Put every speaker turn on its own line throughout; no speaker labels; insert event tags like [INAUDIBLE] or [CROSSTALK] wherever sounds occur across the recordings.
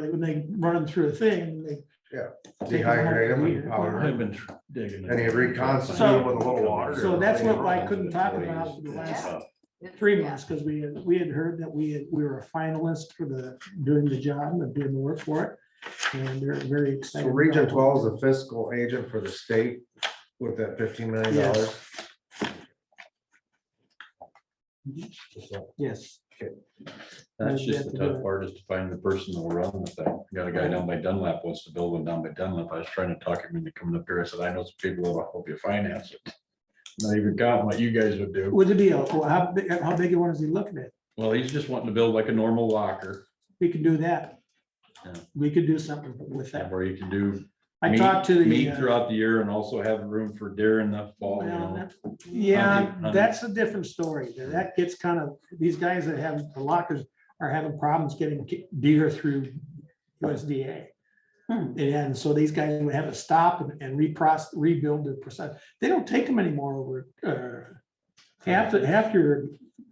they run 'em through a thing, they.
Yeah,
take 'em home
dehydrate 'em
for a
and
year.
powder 'em.
I've been tr- digging.
And you reconstitute
So-
with a little water.
So that's what I couldn't talk about for the last three months, because we, had- we had heard that we, had- we were a finalist for the, doing the job and doing the work for it. And they're very
So
excited.
Region
about it.
twelve is a fiscal agent for the state with that fifteen million dollars.
Yes. Yes,
That's just the tough part is to find the person that will run the thing. Got a guy down by Dunlap wants to build one down by Dunlap. I was trying to talk him into coming up here. I said, I know some people that will help you finance it. Not even got what you guys would do.
would it be, a- well, how, big- how big a one is he looking at?
Well, he's just wanting to build like a normal locker
We could do that.
Yeah.
We could do something with that.
where you can do.
I
meat-
talked to the.
Meat
uh,
throughout the year and also have room for deer in the fall, you
Well,
know.
that- Yeah,
Hunting,
that's a different story. Now, That gets kind of, these guys that have the lockers are having problems getting ki- deer through USDA.
Hmm.
And so these guys would have to stop and- and reprocess, rebuild the percent. They don't take them anymore over, uh, half, the- half your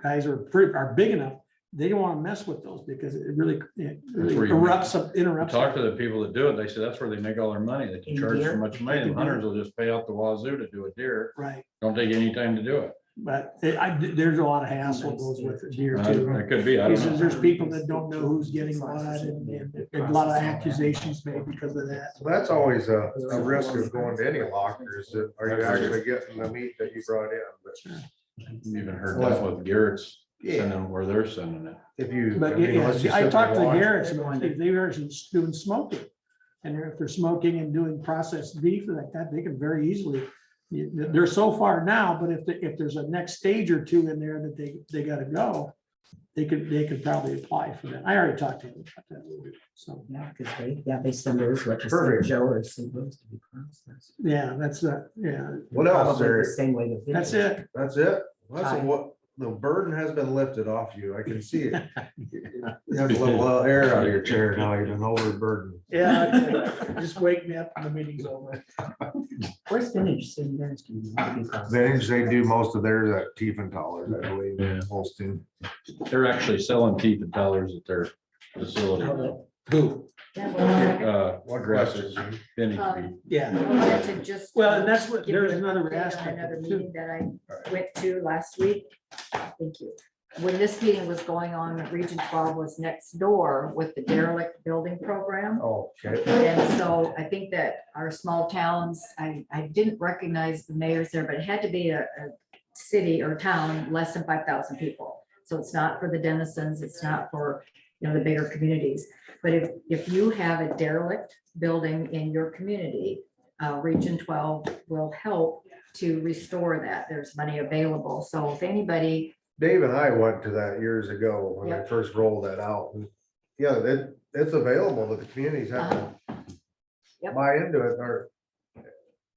guys are, pretty- are big enough. They don't want to mess with those because it really it really
where you-
erupts, up-
I
interrupts.
talked to the people that do it. They said that's where they make all their money. They can
In
charge so
deer?
much money. The hunters will just pay out the wazoo to do a deer.
Right,
Don't take any time to do it.
but it- I, there's a lot of hassle that goes with deer too.
Uh, It could be, I
He
don't know.
says there's people that don't know who's getting what and, and a lot of accusations made because of that.
So that's always a, a risk of going to any lockers. that- Are you actually getting the meat that you brought in? But
Even heard that with Garrett's, sending where they're sending it.
If you.
But
mean,
yeah,
unless you
I
sit
talked to
there and watch-
Garrett's, if they were doing smoking. And if they're smoking and doing processed beef like that, they can very easily, they're so far now, but if, the- if there's a next stage or two in there that they, they gotta go, they could, they could probably apply for that. I already talked to him about that. So,
Yeah, because they, yeah, they send those, like,
Perfect.
Joe or supposed to be processed.
yeah, that's, uh, yeah,
What else,
Probably the
Eric?
Same way the.
that's
video.
it.
That's it? Listen,
Hi.
what, the burden has been lifted off you. I can see
[LAUGHS]
it. You have a [LAUGHS] little air out of your chair now. You've been overburdened.
Yeah, okay. just [LAUGHS] wake me up when the meeting's over.
Where's vintage? So you guys can be processed.
Vintage, [LAUGHS] they do most of theirs at Tiefenthaler, I believe,
Yeah.
Holstein.
They're actually selling teeth and dollars at their facility. Who? Uh,
What
Grasses.
question?
Benny Beef.
Yeah.
I wanted to just.
Well, and that's what-
give you
there's
an
another
update on
aspect of
Another
it, too.
meeting that I went to last week. Thank you. When this meeting was going on, Region Twelve was next door with the derelict building program.
Oh, okay.
And so I think that our small towns, I, I didn't recognize the mayors there, but it had to be a, a city or town, less than five thousand people. So it's not for the denizens, it's not for, you know, the bigger communities. But if, if you have a derelict building in your community, uh, Region twelve will help to restore that. There's money available. So if anybody,
Dave and I went to that years ago when they first rolled that out. And, Yeah, that, it's available, but the communities have to
Uh-huh. Yep.
buy into it or,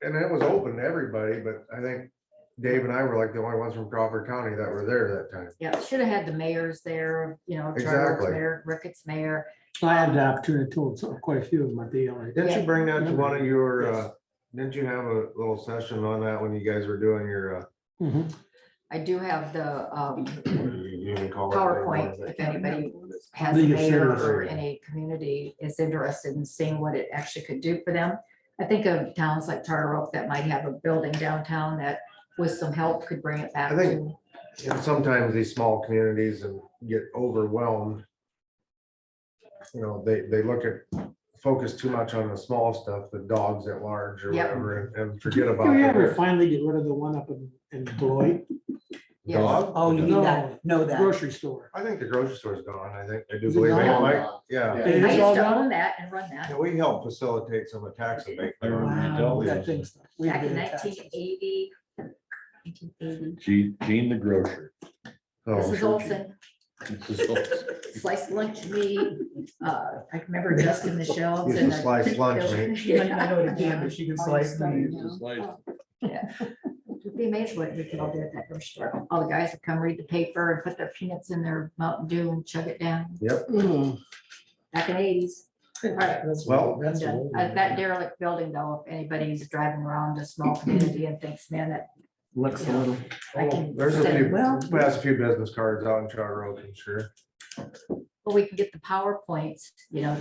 and it was open to everybody, but I think Dave and I were like the only ones from Crawford County that were there that time.
yeah, should have had the mayors there, you know, Charles
Exactly.
Mayor, Ricketts Mayor.
I had the opportunity to talk to quite a few of my DLA.
Didn't you
Yeah.
bring that to one of your, uh, didn't you have a little session on that when you guys were doing your, uh,
I do have the, um,
what do you even call it?
PowerPoint, if anybody has a
League of
mayor
Cities.
or any community is interested in seeing what it actually could do for them. I think of towns like Charter Oak that might have a building downtown that with some help could bring it back
I think-
to.
And sometimes these small communities and get overwhelmed. You know, they, they look at, focus too much on the small stuff, the dogs at large or
Yep.
whatever, and- and forget
Did we ever
about.
finally get rid of the one up in, in Beloit
Yes.
Oh, you mean that, know that.
grocery store?
I think the grocery store's gone. I think, I do
Is it
believe they
gone?
might, yeah.
I
It
used
is all
to
gone?
own that and run that
Yeah, we help facilitate some of the tax abatement.
I remember you
Wow,
told me
that
this.
thing's- we
back in
did it.
nineteen eighty.
Gene, Gene the grocer. [LAUGHS]
So,
Mrs. Olson, sliced lunch meat, uh, I remember dusting the shelves
Used
and.
to slice lunch
[LAUGHS]
meat.
She [LAUGHS] might not know it again, but she can slice them.
You'd Be amazed what we could all do at that grocery store. All the guys would come read the paper and put their peanuts in their Mountain Dew and chug it down back in the eighties.
Well,
That's
Yeah,
old.
uh, That derelict building though, if anybody's driving around a small community and thinks, man, that
Looks a little.
I can
there's a
send,
few,
well,
we have a few business cards out in Charter Oak, I'm sure.
well, we can get the PowerPoints, you know,